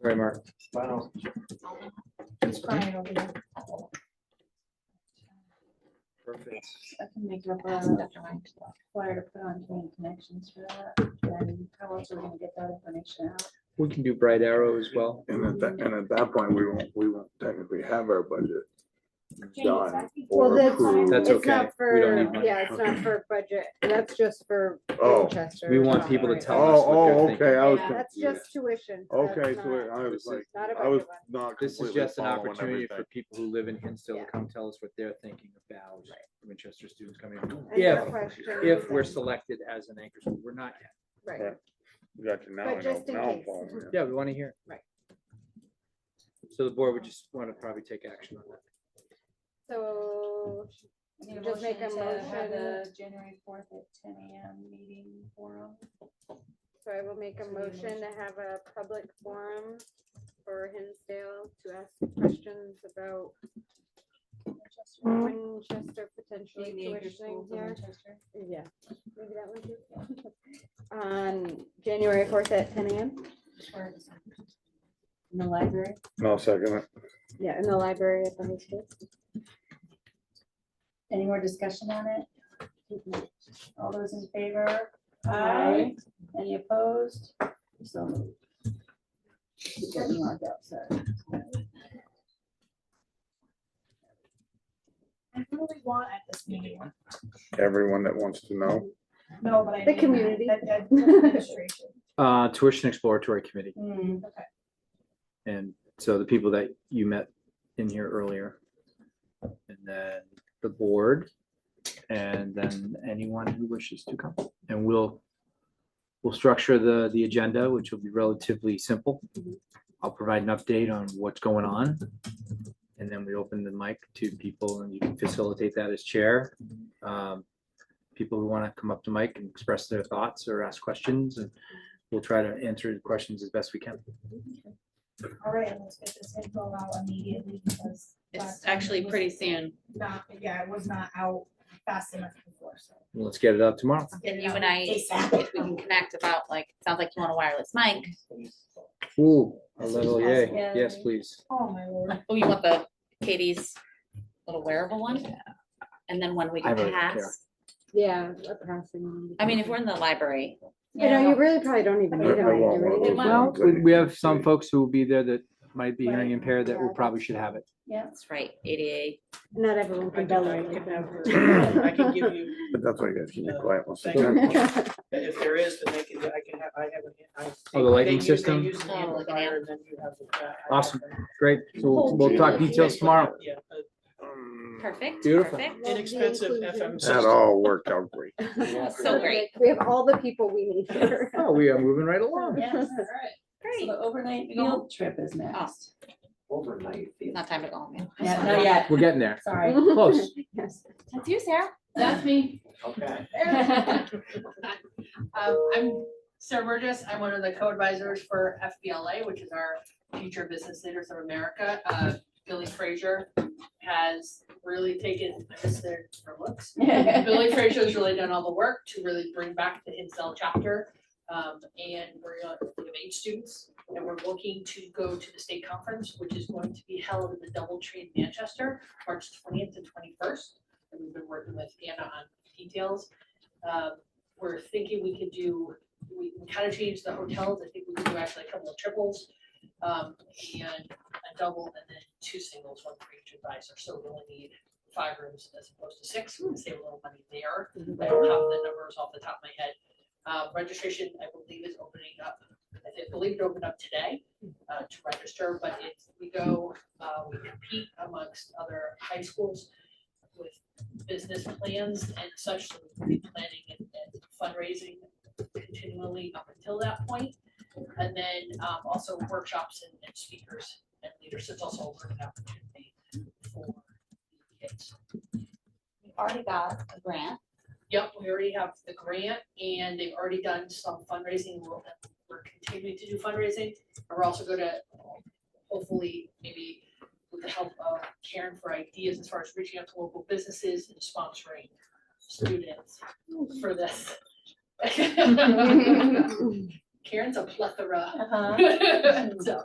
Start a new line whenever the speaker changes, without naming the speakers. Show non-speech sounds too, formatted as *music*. Sorry, Mark.
Wow.
It's crying over there.
Perfect.
I can make it up around the flyer to put on community connections for that. And how else are we gonna get that information out?
We can do Bright Arrow as well.
And at that, and at that point, we won't, we won't technically have our budget done
Well,
or
that's-
approved.
That's
It's
okay.
not
We don't need
for,
money.
yeah, it's not for budget, that's just for
Oh, oh,
Winchester.
We want people to
Right.
tell us what they're
oh,
thinking.
okay, I was,
Yeah,
con-
That's just tuition.
okay,
that's
so
not-
I was
This
like,
is-
Not a
I was
budget one.
not
This is
completely
just an
following
opportunity
everything.
for people who live in Hinsdale to
Yeah.
come tell us what they're thinking about Winchester students coming.
Any other
If,
questions?
if we're selected as an anchor school, we're not yet.
Right,
Gotcha, now
But
I know,
just in
now I'm
case.
following you.
Yeah, we want to hear. it.
Right.
So the board would just want to probably take action on that.
so,
I need
Just make a
to have
motion.
the January fourth at ten AM meeting forum.
so I will make a motion to have a public forum for Hinsdale to ask questions about Winchester potentially
Maybe anchor
tuitioning
schools in
here.
Winchester.
Yeah, maybe that one too. *laughs* On January fourth at ten AM.
Or In the library.
No, second, it.
Yeah, in the library at the high school.
Any more discussion on it? All those in favor?
Aye.
Any opposed? So moved. Keep getting marked out, sorry.
And who do we want at this meeting?
everyone that wants to know,
No, but I. mean
The
that-
community.
that- that Administration.
Uh, tuition exploratory committee.
Hmm,
And so the people that you met in here earlier. And then the board. And then anyone who wishes to come. And we'll, we'll structure the, the agenda, which will be relatively simple. I'll provide an update on what's going on. And then we open the mic to people and you can facilitate that as chair. Um, People who want to come up to mic and express their thoughts or ask questions and we'll try to answer the questions as best we can.
All right, let's get this info out immediately because. last
It's
time it
actually
was
pretty soon,
Not, yeah, it was not out fast enough before, so.
Well, Let's get it out tomorrow.
let's get
and
it
you
out
and I,
ASAP.
if we *laughs* can connect about like, it sounds like you want a wireless mic,
Ooh, a little yay.
possible. Yeah.
Yes, please.
Oh, my
*laughs*
lord.
oh, you want the Katie's little wearable one? And then when we
I really don't care.
pass,
Yeah, a passing. one.
I mean, if we're in the library,
You know, you really probably don't even
I-
need
I
them. like,
want
you
one of
really-
those.
Well,
Well, we- we have some folks who will be there that might be hearing impaired that will
Yeah.
probably should have it.
yeah.
that's right, ADA,
Not everyone
I
can
can,
bell
I
ring.
can have her- I can give *laughs* you,
but that's why you guys keep it quiet. once
Thank
again.
if there is, then they can, I can have, I have. an- I-
Oh, the lighting
they use- they
system?
use an
Oh, like an
amplifier, and then you have the- uh, I have
Awesome.
that.
Great. So we'll- we'll talk details tomorrow.
Yeah, uh,
Um,
perfect,
Beautiful.
perfect.
the
Inexpensive
inclusion.
FM
That
system.
all worked out great.
*laughs*
*laughs*
So great,
We have all the people we need here.
Oh, we are moving right along.
Oh, Yes, all right. So
great,
the overnight
You go home?
field trip is next.
Overnight.
It's not time to go home yet.
Yeah, not yet,
We're getting there.
*laughs* sorry.
Close.
Yes.
That's you, Sarah.
That's me.
Okay.
Um, I'm Sarah Burgess. I'm one of the co-advisors for FBLA, which is our Future Business Leaders of America. Uh, Billy Frazier has really taken, I miss their their looks. *laughs* Billy Frazier's really done all the work to really bring back the Incel chapter. Um, and we're, uh, we have eight students and we're looking to go to the state conference, which is going to be held in the Doubletree in Manchester, March twentieth to twenty-first. And we've been working with Anna on details. Um, we're thinking we could do, we kind of changed the hotels, I think we could do actually a couple of triples. Um, and a double and then two singles, one for each advisor, so we only need five rooms as opposed to six, we can save a little money there. I don't have the numbers off the top of my head. Uh, registration, I believe, is opening up, I think- believe it opened up today, uh, to register, but it's, we go, uh, we compete amongst other high schools with business plans and such, so we'll be planning and and fundraising continually up until that point. And then um, also workshops and and speakers and leaders, it's also a learning opportunity for kids.
We already got
*laughs*
a grant.
Yep, we already have the grant and they've already done some fundraising, we're, we're continuing to do fundraising. And We're also gonna hopefully maybe with the help of Karen for ideas as far as reaching out to local businesses and sponsoring students for this. *laughs* Karen's a plethora, *laughs* so.